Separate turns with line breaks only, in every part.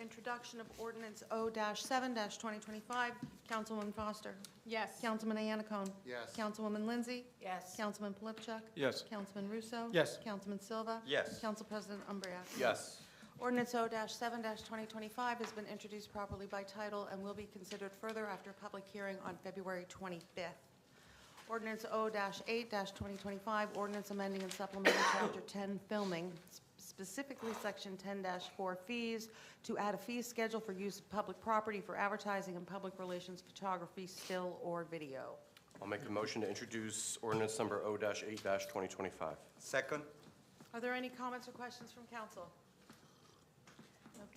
introduction of ordinance O-7-2025. Councilwoman Foster.
Yes.
Councilman Anacone.
Yes.
Councilwoman Lindsay.
Yes.
Councilman Polypchuk.
Yes.
Councilman Russo.
Yes.
Councilman Silva.
Yes.
Council President Umbreak.
Yes.
Ordinance O-7-2025 has been introduced properly by title and will be considered further after public hearing on February 25th. Ordinance O-8-2025, ordinance amending and supplementing Chapter 10 filming, s- specifically Section 10-4 fees, to add a fee schedule for use of public property for advertising and public relations photography, still or video.
I'll make a motion to introduce ordinance number O-8-2025.
Second?
Are there any comments or questions from council?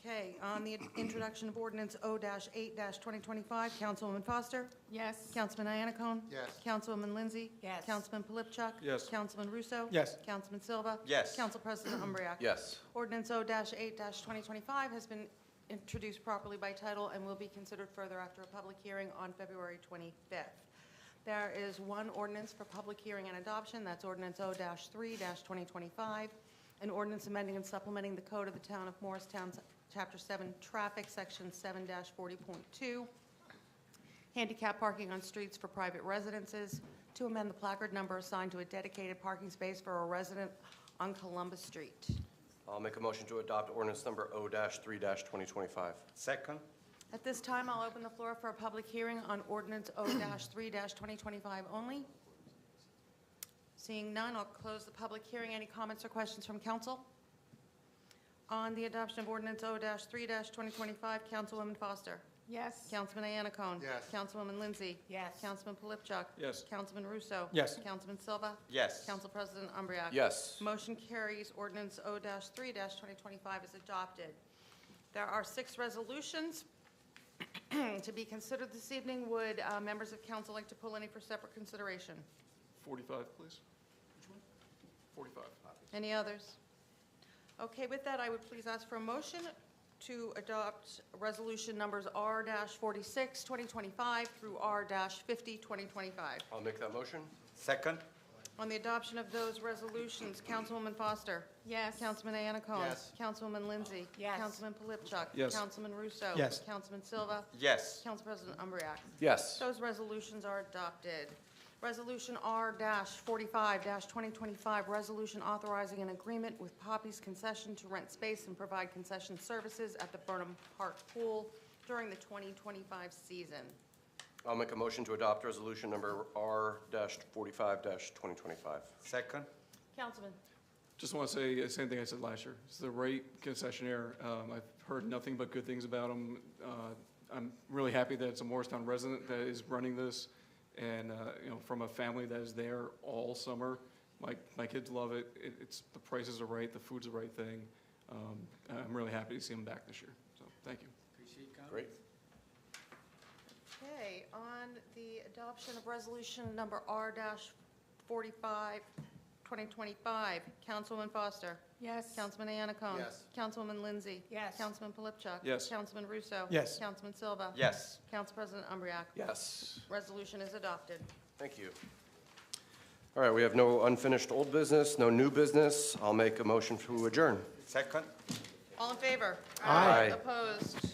Okay, on the introduction of ordinance O-8-2025, Councilwoman Foster?
Yes.
Councilman Iannacone?
Yes.
Councilwoman Lindsay?
Yes.
Councilman Polypchuk?
Yes.
Councilman Russo?
Yes.
Councilman Silva?
Yes.
Council President Umbreak?
Yes.
Ordinance O-8-2025 has been introduced properly by title and will be considered further after a public hearing on February 25th. There is one ordinance for public hearing and adoption, that's ordinance O-3-2025, an ordinance amending and supplementing the code of the town of Morristown, Chapter 7, Traffic, Section 7-40.2, handicap parking on streets for private residences, to amend the placard number assigned to a dedicated parking space for a resident on Columbus Street.
I'll make a motion to adopt ordinance number O-3-2025.
Second?
At this time, I'll open the floor for a public hearing on ordinance O-3-2025 only. Seeing none, I'll close the public hearing. Any comments or questions from council? On the adoption of ordinance O-3-2025, Councilwoman Foster.
Yes.
Councilman Anacone.
Yes.
Councilwoman Lindsay.
Yes.
Councilman Polypchuk.
Yes.
Councilman Russo.
Yes.
Councilman Silva.
Yes.
Council President Umbreak.
Yes.
Motion carries. Ordinance O-3-2025 is adopted. There are six resolutions to be considered this evening. Would uh, members of council like to pull any for separate consideration?
45, please. Which one? 45.
Any others? Okay, with that, I would please ask for a motion to adopt resolution numbers R-46, 2025 through R-50, 2025.
I'll make that motion.
Second?
On the adoption of those resolutions, Councilwoman Foster.
Yes.
Councilman Anacone.
Yes.
Councilwoman Lindsay.
Yes.
Councilman Polypchuk.
Yes.
Councilman Russo.
Yes.
Councilman Silva.
Yes.
Council President Umbreak.
Yes.
Those resolutions are adopted. Resolution R-45-2025, resolution authorizing an agreement with Poppy's Concession to rent space and provide concession services at the Burnham Park Pool during the 2025 season.
I'll make a motion to adopt resolution number R-45-2025.
Second?
Councilman.
Just want to say the same thing I said last year. It's the right concessionaire. Um, I've heard nothing but good things about him. Uh, I'm really happy that it's a Morristown resident that is running this and, uh, you know, from a family that is there all summer. My, my kids love it. It, it's, the prices are right, the food's the right thing. Um, I'm really happy to see him back this year. So, thank you.
Great.
Okay, on the adoption of resolution number R-45, 2025, Councilwoman Foster.
Yes.
Councilman Anacone.
Yes.
Councilwoman Lindsay.
Yes.
Councilman Polypchuk.
Yes.
Councilman Russo.
Yes.
Councilman Silva.
Yes.
Council President Umbreak.
Yes.
Resolution is adopted.
Thank you. All right, we have no unfinished old business, no new business. I'll make a motion to adjourn.
Second?
All in favor?
Aye. Aye.
Opposed?